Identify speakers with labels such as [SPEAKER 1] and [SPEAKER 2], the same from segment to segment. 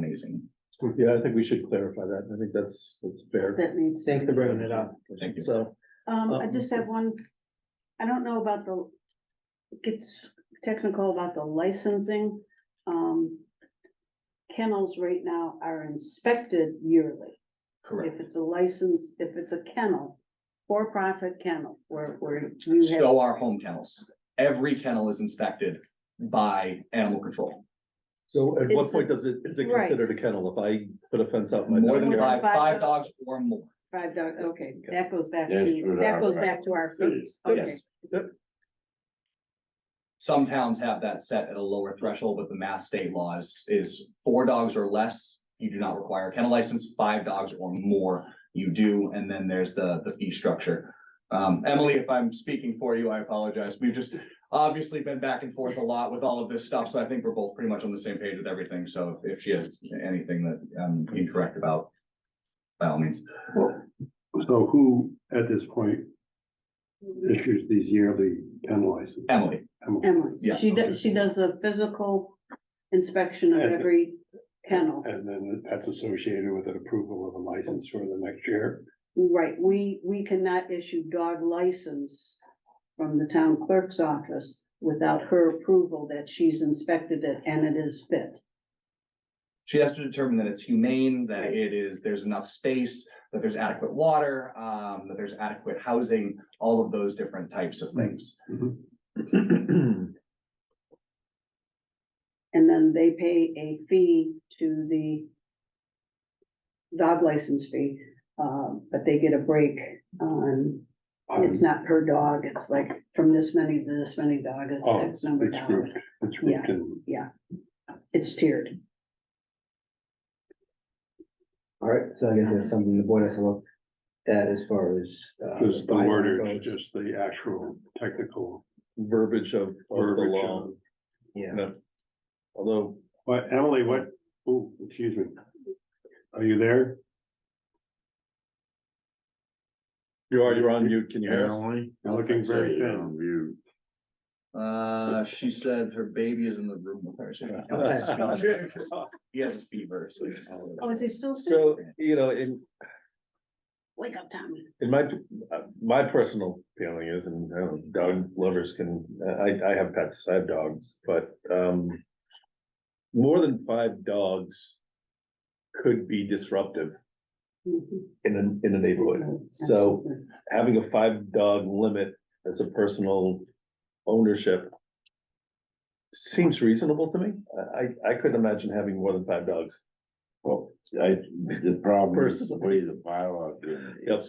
[SPEAKER 1] amazing.
[SPEAKER 2] Yeah, I think we should clarify that. I think that's, that's fair.
[SPEAKER 3] That needs.
[SPEAKER 4] Thanks for bringing it up. Oh.
[SPEAKER 1] Thank you.
[SPEAKER 4] So,
[SPEAKER 3] Um, I just have one, I don't know about the, it gets technical about the licensing. Um, kennels right now are inspected yearly. If
[SPEAKER 1] Correct.
[SPEAKER 3] it's a license, if it's a kennel, for-profit kennel, where, where you have,
[SPEAKER 1] So are home kennels. Every kennel is inspected by animal control.
[SPEAKER 2] So at what
[SPEAKER 3] It's-
[SPEAKER 2] point does it, is it
[SPEAKER 3] Right.
[SPEAKER 2] considered a kennel if I put a fence out? my
[SPEAKER 1] More than five,
[SPEAKER 2] backyard?
[SPEAKER 3] Five
[SPEAKER 1] five
[SPEAKER 3] dogs.
[SPEAKER 1] dogs or more.
[SPEAKER 3] five dog, okay, that goes back
[SPEAKER 5] Yeah,
[SPEAKER 3] to,
[SPEAKER 5] true,
[SPEAKER 3] that goes
[SPEAKER 5] right.
[SPEAKER 3] back to our fees, okay.
[SPEAKER 1] Yes. Some towns have that set at a lower threshold, but the mass state law is, is four dogs or less, you do not require a kennel license, five dogs or more, you do, and then there's the, the fee structure. Um, Emily, if I'm speaking for you, I apologize. We've just obviously been back and forth a lot with all of this stuff, so I think we're both pretty much on the same page with everything, so if if she has anything that I'm incorrect about, by all means.
[SPEAKER 5] So who at this point issues these yearly pen licenses?
[SPEAKER 1] Emily,
[SPEAKER 3] Emily,
[SPEAKER 1] Yeah,
[SPEAKER 3] she
[SPEAKER 5] okay.
[SPEAKER 3] does, she does a physical inspection of
[SPEAKER 5] And-
[SPEAKER 3] every kennel.
[SPEAKER 5] And then that's associated with an approval of a license for the next year.
[SPEAKER 3] Right, we, we cannot issue dog license from the town clerk's office without her approval that she's inspected it and it is fit.
[SPEAKER 1] She has to determine that it's humane, that it is, there's enough space, that there's adequate water, um, that there's adequate housing, all of those different types
[SPEAKER 5] Hmm.
[SPEAKER 1] of things.
[SPEAKER 3] And then they pay a fee to the dog license fee, um, but they get a break on,
[SPEAKER 5] Um,
[SPEAKER 3] it's not per dog, it's like from this many to this many dog, it's
[SPEAKER 5] Oh,
[SPEAKER 3] X
[SPEAKER 5] it's
[SPEAKER 3] number of dollars.
[SPEAKER 5] grouped, it's grouped in.
[SPEAKER 3] It's tiered.
[SPEAKER 4] all right, so I guess that's something the board has to look at as far as. uh,
[SPEAKER 5] Just the
[SPEAKER 4] bylaw
[SPEAKER 5] wordage,
[SPEAKER 4] goes.
[SPEAKER 5] just the actual technical
[SPEAKER 2] Verbiage of, of the
[SPEAKER 5] verbiage.
[SPEAKER 2] law.
[SPEAKER 5] of-
[SPEAKER 4] Yeah,
[SPEAKER 2] No. Although,
[SPEAKER 5] But Emily, what, oh, excuse me. Are you there?
[SPEAKER 2] you are, you're on mute. Can you hear us?
[SPEAKER 6] Emily?
[SPEAKER 5] You're looking very thin.
[SPEAKER 1] um, Uh, she said her baby is in the room with her. so she can't speak. He has a fever, so.
[SPEAKER 3] Oh, is he still sick?
[SPEAKER 2] So, you know, in,
[SPEAKER 3] Wake up, Tommy.
[SPEAKER 2] in my, uh, my personal feeling is, and I don't, dog lovers can, I, I have pets, I have dogs, but, um. More than five dogs could be disruptive
[SPEAKER 3] Mhm.
[SPEAKER 2] in a, in a neighborhood. So having a five dog limit as a personal ownership. Seems reasonable to me. I, I, I couldn't imagine having more than five dogs.
[SPEAKER 6] Well, I, the problem is the
[SPEAKER 2] Personally.
[SPEAKER 6] way the bylaw is.
[SPEAKER 2] Yep.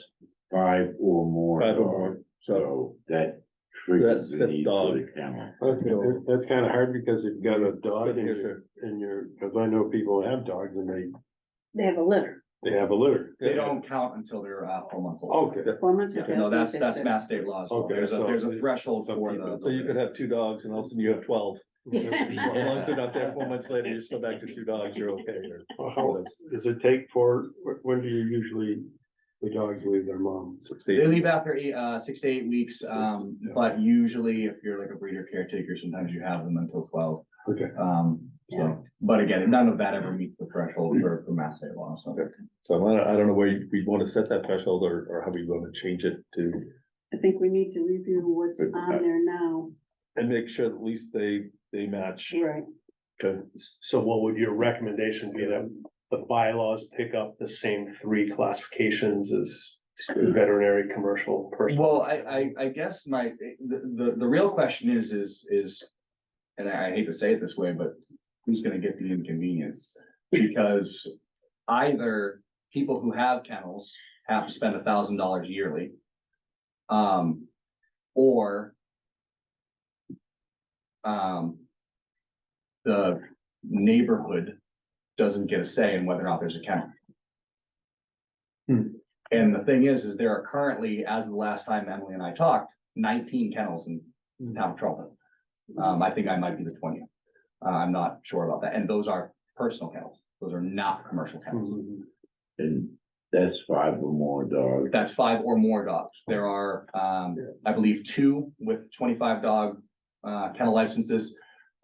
[SPEAKER 6] Five or more.
[SPEAKER 2] Five or more,
[SPEAKER 6] dogs,
[SPEAKER 2] so,
[SPEAKER 6] So that triggers the
[SPEAKER 2] That's the
[SPEAKER 6] need for the
[SPEAKER 2] dog.
[SPEAKER 6] kennel.
[SPEAKER 5] That's, that's kind of hard because you've got a dog
[SPEAKER 2] Yes,
[SPEAKER 5] in your,
[SPEAKER 2] sir.
[SPEAKER 5] in your, because I know people have dogs and
[SPEAKER 3] They have a litter.
[SPEAKER 5] they, they have a litter.
[SPEAKER 1] They don't count until they're, uh, four months old.
[SPEAKER 5] Okay.
[SPEAKER 3] Four months.
[SPEAKER 1] Yeah,
[SPEAKER 3] okay, I
[SPEAKER 1] no,
[SPEAKER 3] was gonna
[SPEAKER 1] that's,
[SPEAKER 3] say
[SPEAKER 1] that's
[SPEAKER 3] six.
[SPEAKER 1] mass state law as well.
[SPEAKER 5] Oh. Okay,
[SPEAKER 1] There's a,
[SPEAKER 5] so-
[SPEAKER 1] there's a threshold
[SPEAKER 5] Some
[SPEAKER 1] for
[SPEAKER 5] people-
[SPEAKER 1] the.
[SPEAKER 2] So you could have two dogs and all of a sudden you have twelve. As long as they're not there four months later, you're still back to two dogs, you're okay. or-
[SPEAKER 5] Well, How, does it take for, wh- when do you usually, the dogs leave their mom?
[SPEAKER 1] They leave after eight, uh, six to eight weeks, um, but usually if you're like a breeder caretaker, sometimes you have them until twelve.
[SPEAKER 5] Okay.
[SPEAKER 1] Um, so, but again, none of that ever meets the threshold for, for mass state law, so.
[SPEAKER 2] So I don't, I don't know where you- we want to set that threshold or, or how we want to change it to,
[SPEAKER 3] I think we need to review what's on there now,
[SPEAKER 2] and make sure at least they, they match.
[SPEAKER 3] right?
[SPEAKER 7] So what would your recommendation be that the bylaws pick up the same three classifications as veterinary, commercial, personal?
[SPEAKER 1] Hmm. Well, I, I, I guess my, the, the, the real question is, is, is, and I I hate to say it this way, but who's gonna get the inconvenience? Because either people who have kennels have to spend a thousand dollars yearly. Um, or um, the neighborhood doesn't get a say in whether or not there's a kennel. And the thing is, is there are currently, as of the last time Emily and I talked, nineteen kennels in town of Charlton. Um, I think I might be the twentieth. Uh, I'm not sure about that. And those are personal kennels. Those are not commercial kennels.
[SPEAKER 7] Mm-hmm.
[SPEAKER 6] And that's five or more dogs.
[SPEAKER 1] That's five or more dogs. There are, um, I believe, two with twenty-five dog, uh, kennel licenses.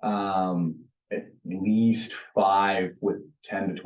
[SPEAKER 1] Um, at least five with ten to twenty